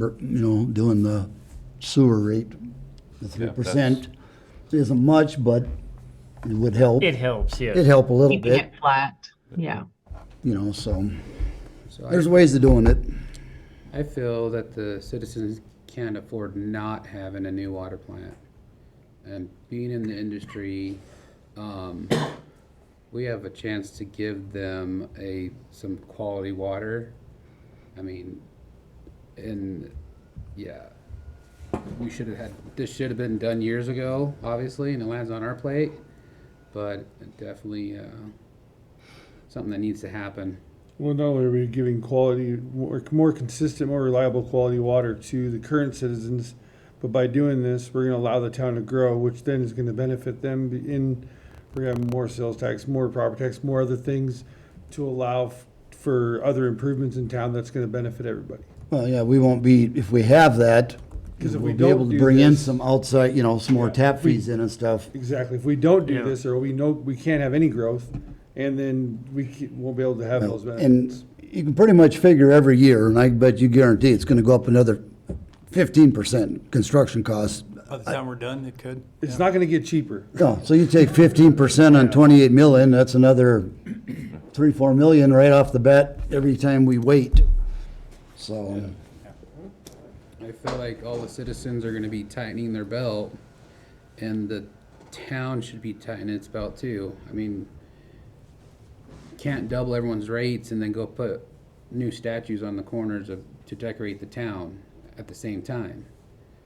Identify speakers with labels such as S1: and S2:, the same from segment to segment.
S1: you know, doing the sewer rate, the three
S2: Yeah,
S1: percent isn't much, but it would help.
S3: It helps, yes.
S1: It'd help a little
S4: keeping
S1: bit,
S4: it flat. Yeah.
S1: you know, so
S5: So
S1: there's
S5: I,
S1: ways of doing it.
S5: I feel that the citizens can't afford not having a new water plant. And being in the industry, um, we have a chance to give them a, some quality water. I mean, and, yeah, we should have had, this should have been done years ago, obviously, and it lands on our plate. But definitely, uh, something that needs to happen.
S6: Well, not only are we giving quality, more, more consistent, more reliable quality water to the current citizens, but by doing this, we're going to allow the town to grow, which then is going to benefit them in, we're going to have more sales tax, more property tax, more other things to allow f- for other improvements in town that's going to benefit everybody.
S1: Well, yeah, we won't be, if we have that,
S6: 'Cause if we
S1: we'll be able
S6: don't
S1: to
S6: do
S1: bring in
S6: this-
S1: some outside, you know, some more
S6: Yeah,
S1: tap
S6: if we-
S1: fees in and stuff.
S6: Exactly. If we don't do
S3: Yeah.
S6: this, or we know, we can't have any growth, and then we ca- won't be able to have those benefits.
S1: And you can pretty much figure every year, and I bet you guarantee it's gonna go up another fifteen percent construction costs.
S7: By the time we're done, it could.
S6: It's not going to get cheaper.
S1: No, so you take fifteen percent on twenty-eight million, that's another three, four million right off the bat every time we wait. So,
S5: I feel like all the citizens are gonna be tightening their belt, and the town should be tightening its belt too. I mean, can't double everyone's rates and then go put new statues on the corners of, to decorate the town at the same time.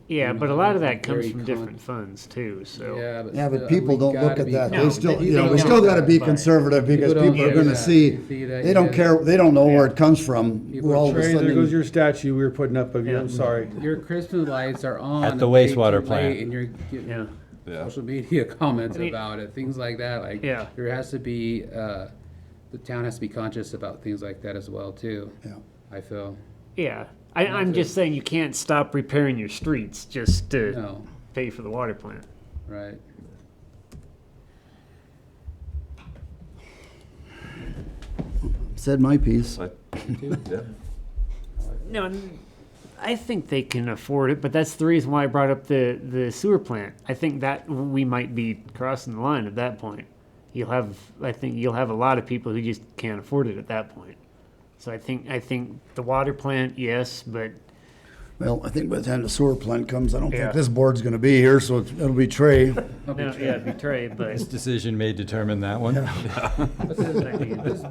S3: Yeah, but a lot of that comes
S5: Very
S3: from
S5: con-
S3: different funds too, so.
S5: Yeah, but.
S1: yeah,
S5: still,
S1: but people
S5: we
S1: don't look
S5: gotta
S1: at
S5: be-
S1: that.
S3: No,
S1: They still,
S3: they-
S1: you know,
S3: they
S1: we
S3: don't
S1: still gotta
S3: look
S1: be
S3: at it.
S1: conservative because
S5: People don't
S1: people are
S5: see
S1: gonna
S5: that.
S1: see,
S5: See that,
S1: they don't
S5: yeah.
S1: care, they don't know where it comes from.
S5: People
S1: We're all of a
S6: Trey, there goes
S1: sudden,
S6: your statue we were putting up of you. I'm sorry.
S5: Your Christmas lights are on.
S7: At the
S5: way too
S7: wastewater
S5: late,
S7: plant.
S5: And you're
S3: Yeah.
S5: getting
S2: Yeah.
S5: social media comments
S3: I mean-
S5: about it, things like that, like.
S3: Yeah.
S5: There has to be, uh, the town has to be conscious about things like that as well too,
S1: yeah,
S5: I feel.
S3: Yeah, I, I'm just saying you can't stop repairing your streets just to
S5: No,
S3: pay for the water plant.
S5: right.
S1: said my piece.
S2: I- yeah.
S3: No, n- I think they can afford it, but that's the reason why I brought up the, the sewer plant. I think that we might be crossing the line at that point. You'll have, I think you'll have a lot of people who just can't afford it at that point. So I think, I think the water plant, yes, but
S1: Well, I think by the time the sewer plant comes, I don't
S3: Yeah.
S1: think this board's gonna be here, so it's- it'll be Trey.
S3: No, yeah, betray, but
S7: This decision may determine that one.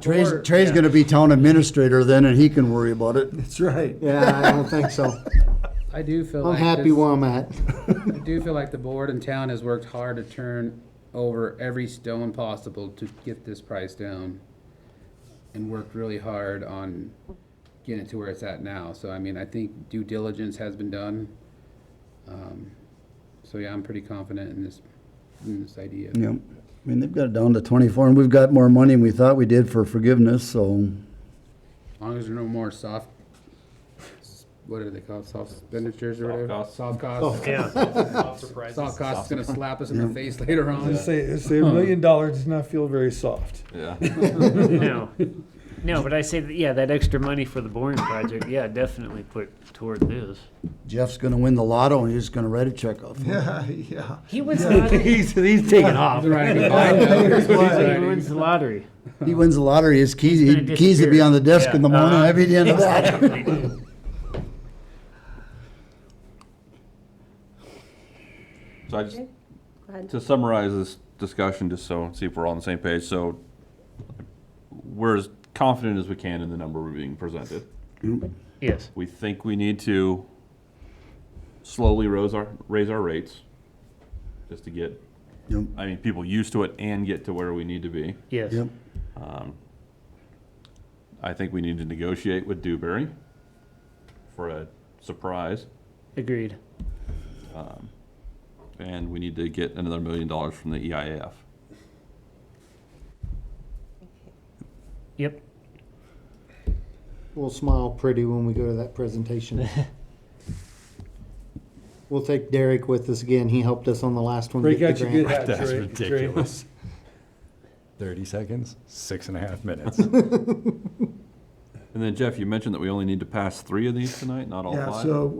S1: Trey's, Trey's gonna be town administrator then, and he can worry about it.
S8: That's right. Yeah, I don't think so.
S5: I do feel
S8: I'm
S5: like
S8: happy
S5: this-
S8: where I'm at.
S5: I do feel like the board and town has worked hard to turn over every stone possible to get this price down. And worked really hard on getting it to where it's at now, so I mean, I think due diligence has been done. Um, So yeah, I'm pretty confident in this, in this idea.
S1: Yeah, I mean, they've got it down to twenty-four, and we've got more money than we thought we did for forgiveness, so,
S5: As long as there are no more soft, what are they called, soft expenditures or
S2: Soft
S5: whatever?
S2: costs.
S5: Soft costs.
S3: yeah,
S5: Soft costs is gonna slap us in the face later on.
S6: Just say, say a million dollars does not feel very soft.
S2: Yeah.
S3: no. No, but I say, that, yeah, that extra money for the boring project, yeah, definitely put toward this.
S1: Jeff's gonna win the lotto, and he's just gonna write a check off.
S8: Yeah, yeah.
S3: He wins the lottery. he's, he's taking off.
S5: He's writing a binder. He's
S3: He
S5: writing-
S3: wins the lottery.
S1: He wins the lottery, his keys,
S3: He's gonna
S1: he- keys will be
S3: disappear.
S1: on the desk in the
S3: Yeah.
S1: morning,
S3: Uh-huh.
S1: every day of the that.
S2: So I just, to summarize this discussion, just so, see if we're all on the same page, so we're as confident as we can in the number we're being presented.
S3: Yes.
S2: We think we need to slowly raise our, raise our rates, just to get,
S1: Yep.
S2: I mean, people used to it and get to where we need to be.
S3: Yes.
S1: Yep,
S2: I think we need to negotiate with Dewberry for a surprise,
S3: Agreed.
S2: and we need to get another million dollars from the E EIF.
S3: Yep.
S8: We'll smile pretty when we go to that presentation. We'll take Derek with us again. He helped us on the last one.
S6: Break
S8: get
S6: out
S8: the
S6: your
S8: grant.
S6: good hat,
S7: That's
S6: Trey- Trey.
S7: ridiculous. 30 seconds, six and a half minutes.
S1: Oh,
S2: And then Jeff, you mentioned that we only need to pass three of these tonight, not all five?
S1: Yeah, so